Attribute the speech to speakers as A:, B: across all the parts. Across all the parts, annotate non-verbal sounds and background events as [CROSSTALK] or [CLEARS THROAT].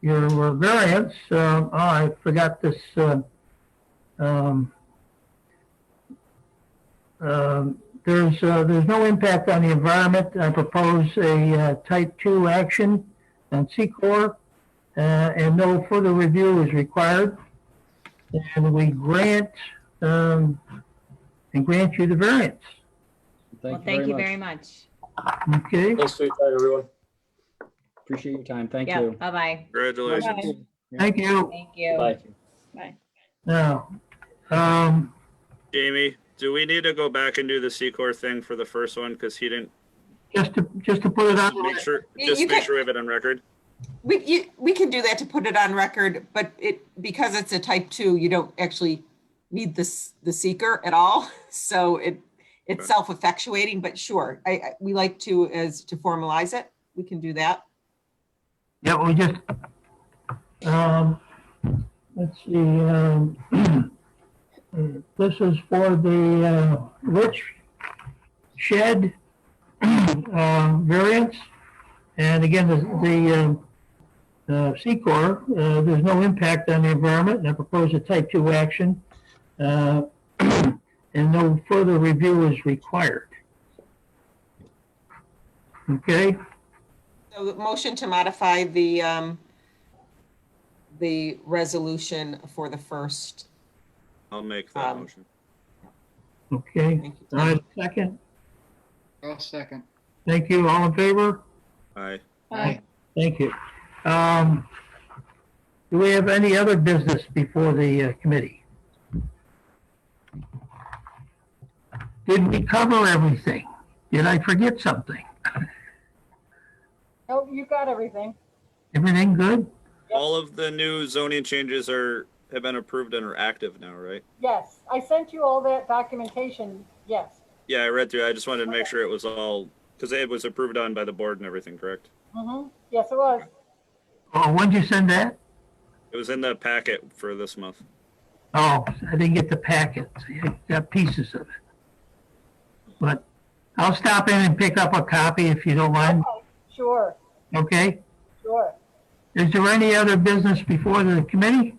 A: your variance, um, oh, I forgot this, uh, um, um, there's, uh, there's no impact on the environment. I propose a, uh, type two action on Secor, uh, and no further review is required. And we grant, um, and grant you the variance,
B: Well, thank you very much.
A: okay?
C: Thanks for your time, everyone.
B: Appreciate your time. Thank
D: Yeah,
B: you.
D: bye-bye.
E: Congratulations.
D: Bye.
A: Thank you.
D: Thank you.
B: Bye.
A: Now, um,
E: Jamie, do we need to go back and do the Secor thing for the first one? Because he didn't
A: just to, just to put it on,
E: make sure,
F: Uh, You-
E: just
F: you
E: make
F: can-
E: sure we have it on record.
F: We, you, we can do that to put it on record, but it, because it's a type two, you don't actually need this, the seeker at all. [LAUGHS] So it, it's self-effectuating, but sure, I, I, we like to, as, to formalize it. We can do that.
A: yeah, we just, um, let's see, um, [CLEARS THROAT] this is for the, uh, rich shed, [CLEARS THROAT] uh, variance. And again, the, the, um, uh, Secor, uh, there's no impact on the environment, and I propose a type two action. Uh, [CLEARS THROAT] and no further review is required. Okay?
F: So the motion to modify the, um, the resolution for the first.
E: I'll make that
F: Um,
E: motion.
A: Okay,
F: Thank you.
A: all right, second,
G: I'll second.
A: thank you, all in favor?
E: Aye.
D: Bye.
A: Thank you. Um, do we have any other business before the uh, committee? Did we cover everything? Did I forget something?
H: Oh, you got everything.
A: Everything good?
E: All of the new zoning changes are, have been approved and are active now, right?
H: Yes, I sent you all that documentation, yes.
E: Yeah, I read through. I just wanted to make sure it was all, because it was approved on by the board and everything, correct?
H: Mm-hmm, yes, it was.
A: Oh, when'd you send that?
E: It was in the packet for this month.
A: Oh, I didn't get the packet. I got pieces of it. But I'll stop in and pick up a copy if you don't mind,
H: Okay, Sure,
A: okay?
H: sure.
A: Is there any other business before the committee?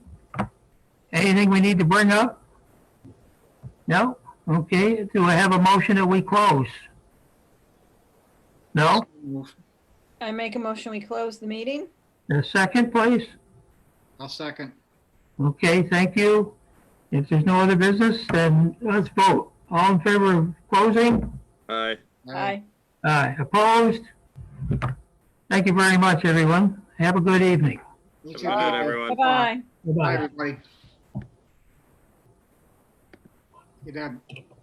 A: Anything we need to bring up? No? Okay, do I have a motion that we close? No?
D: I make a motion, we close the meeting?
A: A second, please?
G: I'll second.
A: Okay, thank you. If there's no other business, then let's vote. All in favor of closing?
E: Aye.
G: Aye.
D: Bye.
A: Aye, opposed? Thank you very much, everyone. Have a good evening.
G: You
E: Have a
G: too.
E: good night, everyone.
D: Bye-bye.
G: Bye,
A: Bye-bye.
G: everybody. Good night.